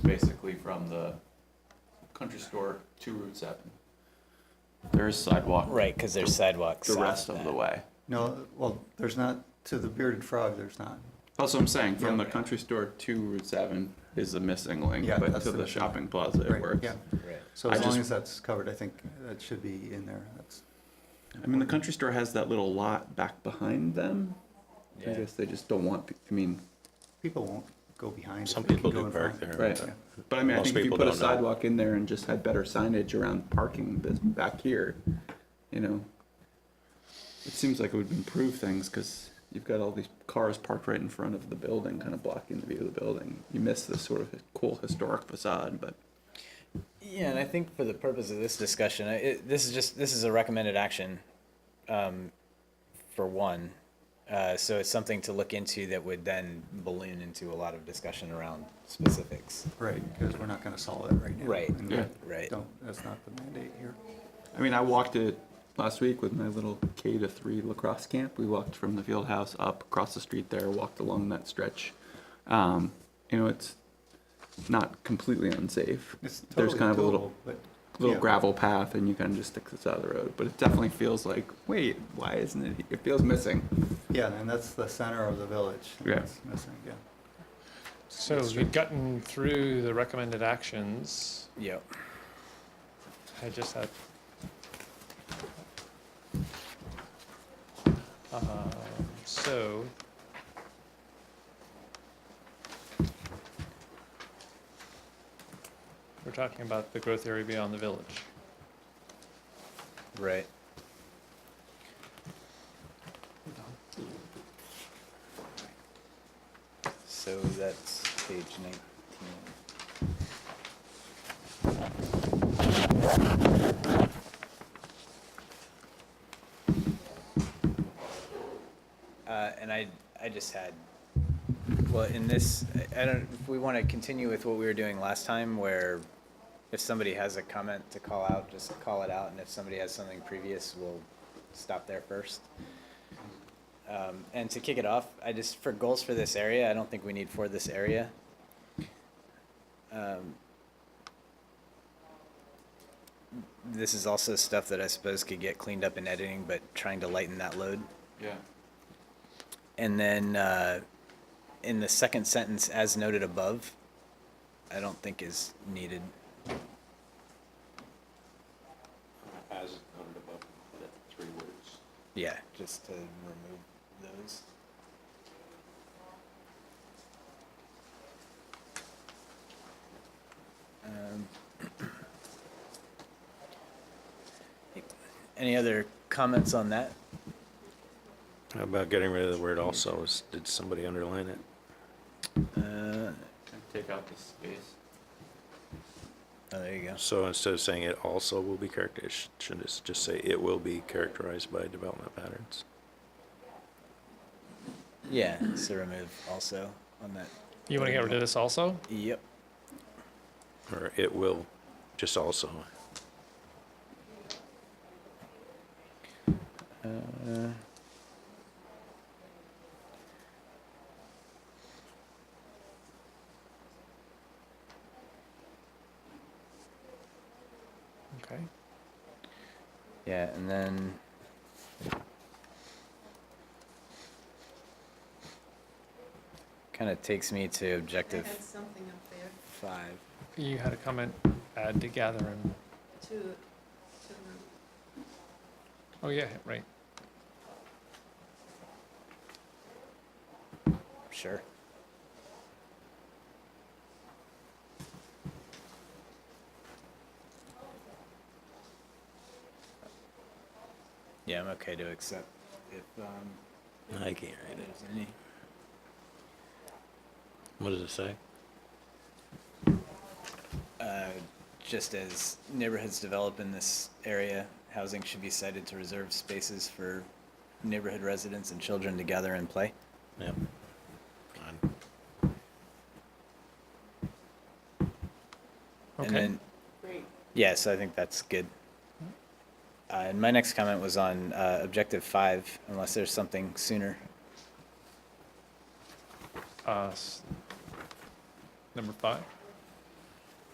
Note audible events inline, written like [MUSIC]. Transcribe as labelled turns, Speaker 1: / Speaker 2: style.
Speaker 1: basically from the country store to Route seven. There is sidewalk
Speaker 2: Right, because there's sidewalks.
Speaker 1: the
Speaker 2: south
Speaker 1: rest of
Speaker 2: that.
Speaker 1: the way.
Speaker 3: No, well, there's not, to the bearded frog, there's not.
Speaker 1: That's what I'm saying, from the
Speaker 3: Yeah.
Speaker 1: country store to Route seven is the missing link,
Speaker 3: Yeah,
Speaker 1: but
Speaker 3: that's
Speaker 1: to
Speaker 3: the
Speaker 1: the
Speaker 3: missing
Speaker 1: shopping plaza it
Speaker 3: Right,
Speaker 1: works.
Speaker 3: Yeah,
Speaker 2: Right.
Speaker 3: so
Speaker 1: I
Speaker 3: as long
Speaker 1: just-
Speaker 3: as that's covered, I think that should be in there, that's.
Speaker 1: I mean, the country store has that little lot back behind them. I
Speaker 2: Yeah.
Speaker 1: guess they just don't want, pe- I mean,
Speaker 3: People won't go behind.
Speaker 4: Some
Speaker 3: if they can
Speaker 4: people
Speaker 3: go
Speaker 4: do
Speaker 3: in
Speaker 4: park
Speaker 3: front.
Speaker 4: there.
Speaker 1: Right.
Speaker 3: Yeah.
Speaker 1: but I mean, I
Speaker 4: Most
Speaker 1: think if you
Speaker 4: people
Speaker 1: put a
Speaker 4: don't know.
Speaker 1: sidewalk in there and just had better signage around parking this back here, you know. It seems like it would improve things, cause you've got all these cars parked right in front of the building, kinda blocking the view of the building. You miss this sort of cool historic facade, but
Speaker 2: Yeah, and I think for the purpose of this discussion, I- it, this is just, this is a recommended action, um, for one. Uh, so it's something to look into that would then balloon into a lot of discussion around specifics.
Speaker 3: Right, because we're not gonna solve it right now.
Speaker 2: Right,
Speaker 3: and we
Speaker 1: Yeah.
Speaker 2: right.
Speaker 3: Don't, that's not the mandate here.
Speaker 1: I mean, I walked it last week with my little K to three lacrosse camp. We walked from the field house up across the street there, walked along that stretch. Um, you know, it's not completely unsafe.
Speaker 3: It's
Speaker 1: There's
Speaker 3: totally
Speaker 1: kind of a
Speaker 3: doable,
Speaker 1: little
Speaker 3: but-
Speaker 1: little
Speaker 3: yeah.
Speaker 1: gravel path, and you kind of just stick this out of the road. But it definitely feels like, wait, why isn't it? here? It feels missing.
Speaker 3: Yeah, and that's the center of the village. and
Speaker 1: Yeah.
Speaker 3: that's missing, yeah.
Speaker 5: So we've gotten through the recommended actions.
Speaker 2: Yep.
Speaker 5: I just had. Um, so. We're talking about the growth area beyond the village.
Speaker 2: Right. So that's page nineteen. Uh, and I, I just had, well, in this, I I don't, if we want to continue with what we were doing last time where if somebody has a comment to call out, just call it out, and if somebody has something previous, we'll stop there first. Um, and to kick it off, I just, for goals for this area, I don't think we need for this area. Um, This is also stuff that I suppose could get cleaned up in editing, but trying to lighten that load.
Speaker 1: Yeah.
Speaker 2: And then uh, in the second sentence, as noted above, I don't think is needed.
Speaker 6: as noted above, that three words.
Speaker 2: Yeah, just to remove those. Um, [CLEARS THROAT] Any other comments on that?
Speaker 4: How about getting rid of the word also? Is- Did somebody underline it?
Speaker 2: Uh,
Speaker 1: Take out the space.
Speaker 2: Oh, there you go.
Speaker 4: So instead of saying it also will be characterized, should it just say it will be characterized by development patterns?
Speaker 2: Yeah, so remove also on that.
Speaker 5: You want to get rid of this also?
Speaker 2: Yep.
Speaker 4: Or it will, just also?
Speaker 2: Uh,
Speaker 5: Okay.
Speaker 2: Yeah, and then. Kind of takes me to objective
Speaker 7: I had something up there
Speaker 2: five.
Speaker 5: You had a comment, add to gather and,
Speaker 7: to, to, um,
Speaker 5: oh yeah, right.
Speaker 2: Sure. Yeah, I'm okay to accept if um,
Speaker 4: I can't read it.
Speaker 2: there's any.
Speaker 4: What does it say?
Speaker 2: Uh, just as neighborhoods develop in this area, housing should be cited to reserve spaces for neighborhood residents and children to gather and play.
Speaker 4: Yep. Fine.
Speaker 2: And
Speaker 5: Okay.
Speaker 2: then,
Speaker 7: great.
Speaker 2: yeah, so I think that's good. Uh, and my next comment was on uh, objective five, unless there's something sooner.
Speaker 5: Uh, s- Number five?